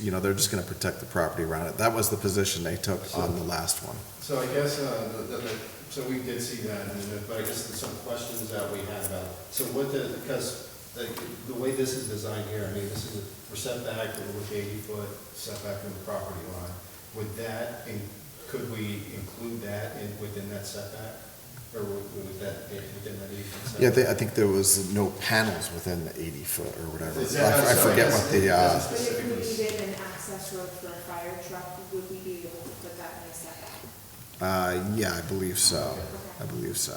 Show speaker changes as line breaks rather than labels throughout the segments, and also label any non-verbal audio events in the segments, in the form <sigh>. you know, they're just gonna protect the property around it. That was the position they took on the last one.
So I guess, uh, the- the- so we did see that, and- but I guess there's some questions that we had about, so what the, because the the way this is designed here, I mean, this is, a- we're set back with eighty foot setback from the property line. Would that, in- could we include that in, within that setback? Or would would that, be within that eighty foot setback?
Yeah, they, I think there was no panels within the eighty foot or whatever.
Is that-
I I forget what the, uh,
But if we needed an access road for a fire truck, would we be able to put that in a setback?
uh, yeah, I believe so. I believe so.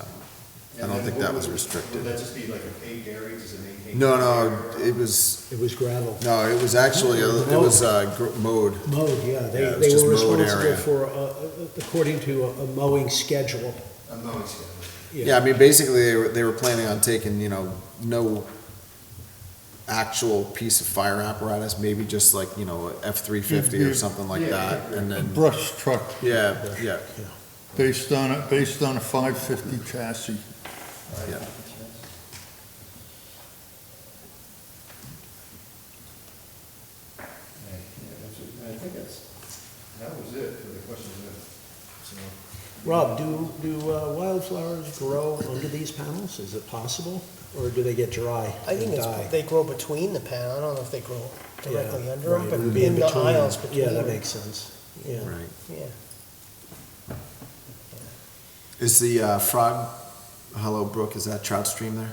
I don't
And then
think
what
that was
would-
restricted.
Would that just be like a paved area, just an eighteen?
No, no, it was,
It was gravel.
no, it was actually, a- it was, uh, gr- mowed.
Mowed, yeah, they,
Yeah, it was
they
just
were
mowed
responsible
area.
for, uh, uh, according to a a mowing schedule.
A mowing schedule.
Yeah, I mean, basically, they were, they were planning on taking, you know, no actual piece of fire apparatus, maybe just like, you know, F three fifty or something like
Mm-hmm. Yeah.
that, and
A
then,
brush truck,
yeah, yeah,
based on, a based on a 550 chassis.
yeah.
Right, yeah, that's it. I think that's, that was it for the questions, yeah. So-
Rob, do, do uh, wildflowers grow under these panels? Is it possible? Or do they get dry
I think
and
it's,
die?
they grow between the pan, I don't know if they grow directly
Yeah,
under
right,
them, but
it would be
in the
between.
aisles between
Yeah, that
them.
makes sense, yeah.
Right.
Yeah,
Is the uh, Frog Hollow Brook, is that trout stream there?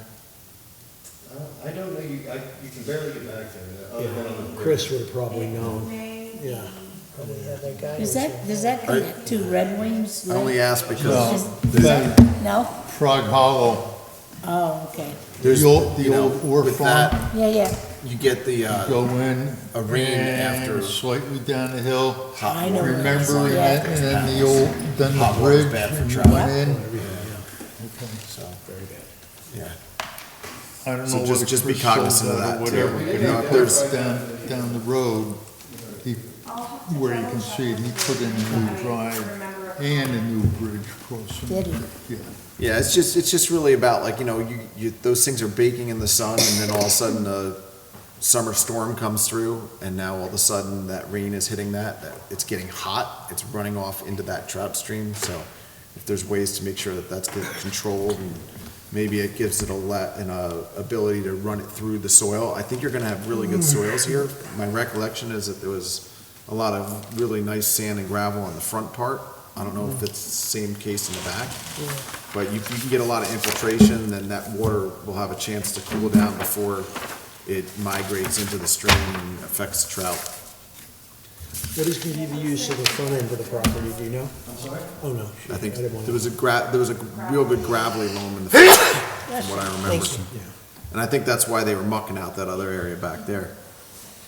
Uh, I don't know, you, I, you can barely get back there, uh, other than on the.
Yeah,
bridge.
Chris would have probably
It
known,
may be-
Oh, yeah.
probably had their guy.
Does that, does that
Are-
connect to Red Wings?
I only asked because
No, the
No?
Frog Hollow,
Oh, okay.
there's,
The old- the
you know,
old Orr
with
farm.
that,
Yeah, yeah,
you get the, uh,
go in.
A ring
and
after-
Slightly down the hill,
hot
I know.
water.
remembering
Yeah.
it, and then the old, then
Hot
the
water's
bridge,
bad for
and you
trout.
went in.
So, yeah.
I don't
So
know
just-
what
just be
Chris sold
cognizant of
out or
that, too.
Whatever,
We
but
didn't
he put it
identify
down,
that.
down the road, he,
I'll have to
where you can
double
see it, he
check
put in
with
a new
you. I
drive
remember a-
and a new bridge crossing.
Did he?
Yeah,
Yeah, it's just, it's just really about like, you know, you, you, those things are baking in the sun and then all of a sudden a summer storm comes through and now all of a sudden that rain is hitting that, that it's getting hot, it's running off into that trout stream, so if there's ways to make sure that that's get- controlled and maybe it gives it a let, an uh, ability to run it through the soil, I think you're gonna have really good soils here. My recollection is that there was a lot of really nice sand and gravel on the front part. I don't know if it's the same case in the back. But you, you can get a lot of infiltration, then that water will have a chance to cool down before it migrates into the stream and affects trout.
What is gonna be the use of the front end of the property, do you know?
I'm sorry?
Oh, no.
I think
didn't wanna-
there was a gra, there was a real good gravelly loam in the, from what I remember.
Thank you.
Yeah.
And I think that's why they were mucking out that other area back there.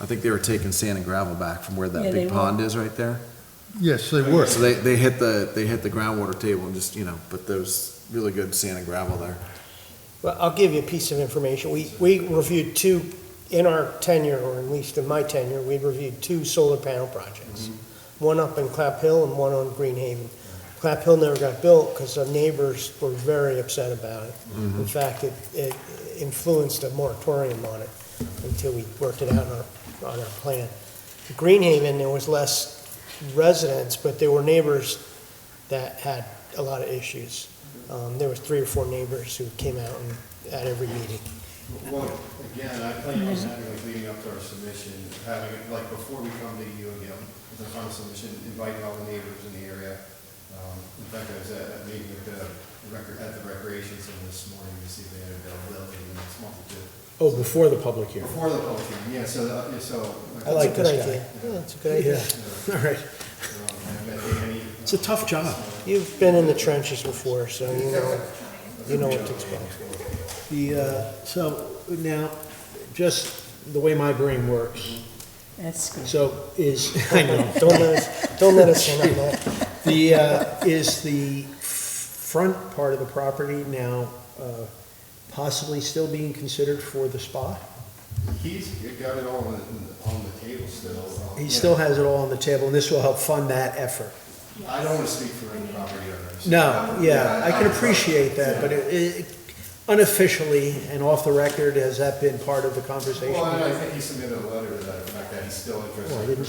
I think they were taking sand and gravel back from where
Yeah,
that
they
big
were.
pond is right there.
yes, they were.
So they, they hit the, they hit the groundwater table and just, you know, but there's really good sand and gravel there.
Well, I'll give you a piece of information. We, we reviewed two, in our tenure, or at least in my tenure, we reviewed two solar panel projects. One up in Clap Hill and one on Green Haven. Clap Hill never got built because the neighbors were very upset about it. In fact, it, it influenced a moratorium on it until we worked it out on our, on our plan. Green Haven, there was less residents, but there were neighbors that had a lot of issues. Um, there was three or four neighbors who came out and, at every meeting.
Well, again, I plan on having, like, leading up to our submission, having, it, like, before we come to you again, with the final submission, inviting all the neighbors in the area. Um, In fact, I was at a meeting with the, rec- at the recreation center this morning to see if they had availability in the next month or two.
Oh, before the public hearing.
Before the public hearing, yeah, so, that- yeah, so.
I like
That's a good
this guy.
idea. Yeah, that's a good idea.
All right,
Um, I bet any-
it's a tough job.
You've been in the trenches before, so you know, you know what to expect.
The, uh, so now, just the way my brain works,
that's good.
so
<laughs>
is, I know,
Don't let us, don't let us in on that.
the, uh, is the f- front part of the property now uh, possibly still being considered for the spa?
He's got it all on, the- on the table still. um,
He
yeah.
still has it all on the table, and this will help fund that effort.
I don't want to speak for any property owners.
No, yeah, I can appreciate that, but it- it- unofficially and off the record, has that been part of the conversation?
Well, and I think he submitted a letter to that, fact that he's still interested.
Well, I didn't